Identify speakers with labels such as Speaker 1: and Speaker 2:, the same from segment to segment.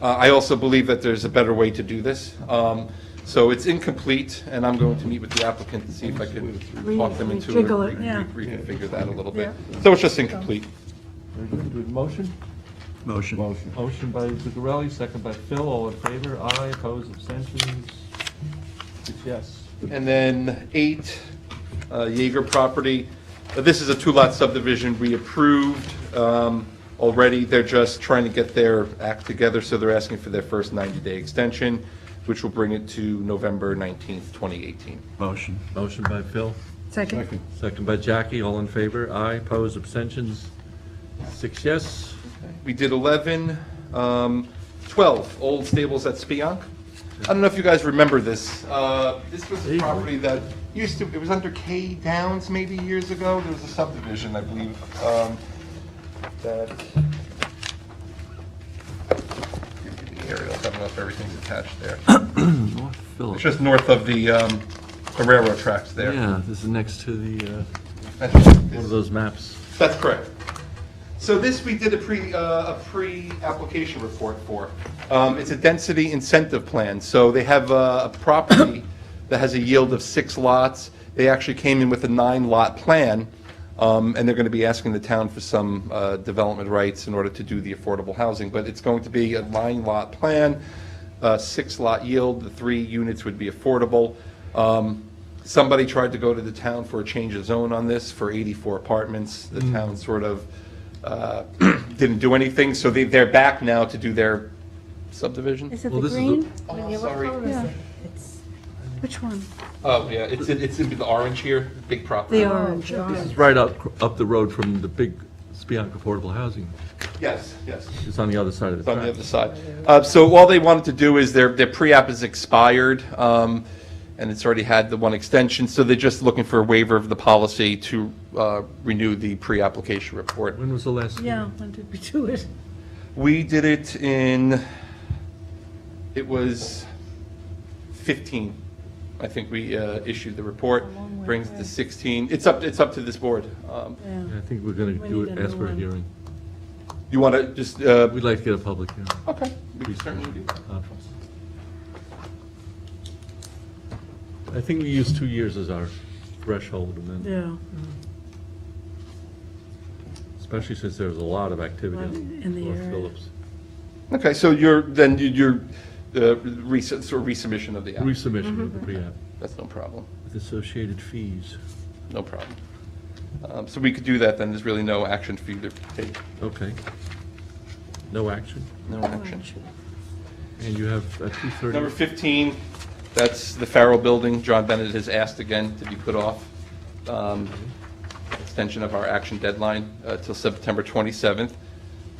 Speaker 1: Uh, I also believe that there's a better way to do this. Um, So it's incomplete, and I'm going to meet with the applicant to see if I can talk them into it,
Speaker 2: Rejiggle
Speaker 1: re-
Speaker 2: it, yeah.
Speaker 1: re- reconfigure that a little bit. So it's just incomplete.
Speaker 3: Very good. Good motion?
Speaker 4: Motion.
Speaker 3: Motion by Zuccarelli, second by Phil, all in favor, aye, opposed, abstentions, it's yes.
Speaker 1: And then eight, uh, Jaeger property. Uh, This is a two-lot subdivision we approved um, already. They're just trying to get their act together, so they're asking for their first 90-day extension, which will bring it to November 19th, 2018.
Speaker 4: Motion.
Speaker 3: Motion by Phil,
Speaker 2: Second.
Speaker 3: second by Jackie, all in favor, aye, opposed, abstentions, six yes.
Speaker 1: We did 11, um, 12, Old Stables at Spionk. I don't know if you guys remember this. Uh, This was a property that used to, it was under K Downs maybe years ago. There was a subdivision, I believe, um, that... Give me the aerials. I don't know if everything's attached there.
Speaker 3: North Phillips.
Speaker 1: It's just north of the um, the railroad tracks there.
Speaker 3: Yeah, this is next to the, uh, one of those maps.
Speaker 1: That's correct. So this, we did a pre, uh, a pre-application report for. Um, It's a density incentive plan, so they have uh, a property that has a yield of six lots. They actually came in with a nine-lot plan, um, and they're going to be asking the town for some uh, development rights in order to do the affordable housing, but it's going to be a nine-lot plan, uh, six-lot yield, the three units would be affordable. Um, Somebody tried to go to the town for a change of zone on this for 84 apartments. The town sort of uh, didn't do anything, so they, they're back now to do their subdivision.
Speaker 2: Is it
Speaker 3: Well,
Speaker 2: the
Speaker 3: this is the-
Speaker 2: green?
Speaker 1: Oh, sorry.
Speaker 2: Yeah. Which one?
Speaker 1: Oh, yeah, it's, it's in the orange here, big property.
Speaker 2: The orange.
Speaker 3: This is right up, up the road from the big Spionk Affordable Housing.
Speaker 1: Yes, yes.
Speaker 3: It's on the other side of
Speaker 1: It's
Speaker 3: the
Speaker 1: on the
Speaker 3: track.
Speaker 1: other side. Uh, So all they wanted to do is their, their pre-app is expired, um, and it's already had the one extension, so they're just looking for a waiver of the policy to uh, renew the pre-application report.
Speaker 3: When was the last
Speaker 2: Yeah,
Speaker 3: hearing?
Speaker 2: when did we do it?
Speaker 1: We did it in, it was 15, I think we uh, issued the report,
Speaker 2: It's a long way
Speaker 1: brings it
Speaker 2: away.
Speaker 1: to 16. It's up, it's up to this board. Um,
Speaker 2: Yeah.
Speaker 3: I think we're gonna
Speaker 2: We
Speaker 3: do
Speaker 2: need
Speaker 3: it,
Speaker 2: a
Speaker 3: ask
Speaker 2: new
Speaker 3: for a
Speaker 2: one.
Speaker 3: hearing.
Speaker 1: You want to just, uh,
Speaker 3: We'd like to get a public hearing.
Speaker 1: okay, we can certainly do that.
Speaker 3: conference. I think we use two years as our threshold, and then,
Speaker 2: Yeah,
Speaker 3: especially since there's a lot of activity
Speaker 2: Well, in
Speaker 3: on
Speaker 2: the
Speaker 3: North
Speaker 2: area.
Speaker 3: Phillips.
Speaker 1: Okay, so you're, then you- you're, uh, res- sort of resubmission of the app.
Speaker 2: Mm-hmm.
Speaker 3: Resubmission of the pre-app
Speaker 1: That's no problem,
Speaker 3: with associated fees.
Speaker 1: no problem. Um, So we could do that, then there's really no action for you to take,
Speaker 3: Okay. No action?
Speaker 1: no action.
Speaker 3: And you have a
Speaker 1: Number
Speaker 3: 230,
Speaker 1: 15, that's the Farrell Building. John Bennett has asked again to be put off. um, Extension of our action deadline uh, till September 27th.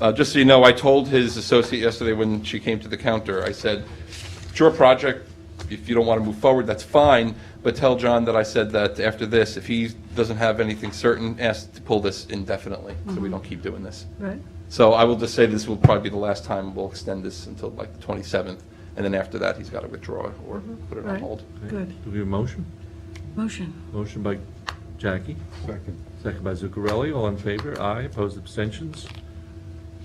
Speaker 1: Uh, Just so you know, I told his associate yesterday when she came to the counter, I said, it's your project, if you don't want to move forward, that's fine, but tell John that I said that after this, if he doesn't have anything certain, ask to pull this indefinitely, so we don't keep doing this.
Speaker 2: right.
Speaker 1: So I will just say this will probably be the last time we'll extend this until like the 27th, and then after that, he's got to withdraw or put it on
Speaker 2: Right.
Speaker 1: hold.
Speaker 2: Good.
Speaker 3: do we have a motion?
Speaker 2: Motion.
Speaker 3: Motion by Jackie,
Speaker 4: Second.
Speaker 3: second by Zuccarelli, all in favor, aye, opposed, abstentions.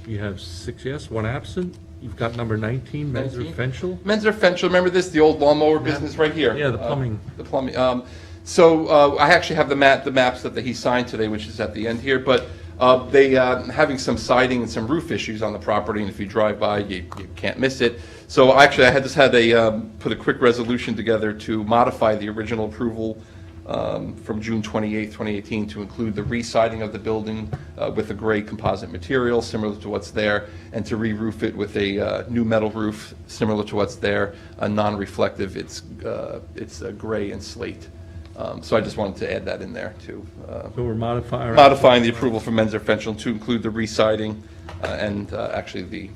Speaker 3: You have six yes, one absent. You've got number 19, Menzer
Speaker 1: 19.
Speaker 3: Fenchel.
Speaker 1: Menzer Fenchel, remember this, the old lawnmower business right here?
Speaker 3: Yeah, the
Speaker 1: Uh,
Speaker 3: plumbing.
Speaker 1: The plumbing. Um, So uh, I actually have the map, the maps that he signed today, which is at the end here, but uh, they, uh, having some siding and some roof issues on the property, and if you drive by, you you can't miss it. So actually, I had just had a, um, put a quick resolution together to modify the original approval um, from June 28, 2018, to include the re-siding of the building uh, with a gray composite material similar to what's there, and to re-roof it with a uh, new metal roof similar to what's there, a non-reflective, it's, uh, it's uh, gray and slate. Um, So I just wanted to add that in there, too. Uh,
Speaker 3: So we're modifying.
Speaker 1: Modifying the approval for Menzer Fenchel to include the re-siding uh, and uh, actually the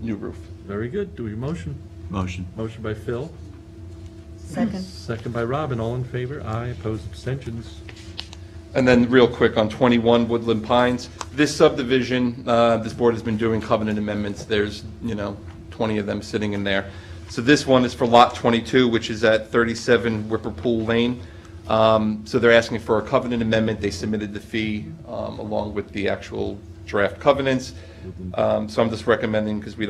Speaker 1: new roof.
Speaker 3: Very good. Do we motion?
Speaker 4: Motion.
Speaker 3: Motion by Phil,
Speaker 5: Second.
Speaker 3: second by Robin. All in favor? Aye. Opposed? Abstentions?
Speaker 1: And then, real quick, on 21 Woodland Pines, this subdivision, uh, this board has been doing covenant amendments, there's, you know, 20 of them sitting in there. So this one is for Lot 22, which is at 37 Whipperpool Lane. Um, So they're asking for a covenant amendment, they submitted the fee um, along with the actual draft covenants. Um, So I'm just recommending, because we don't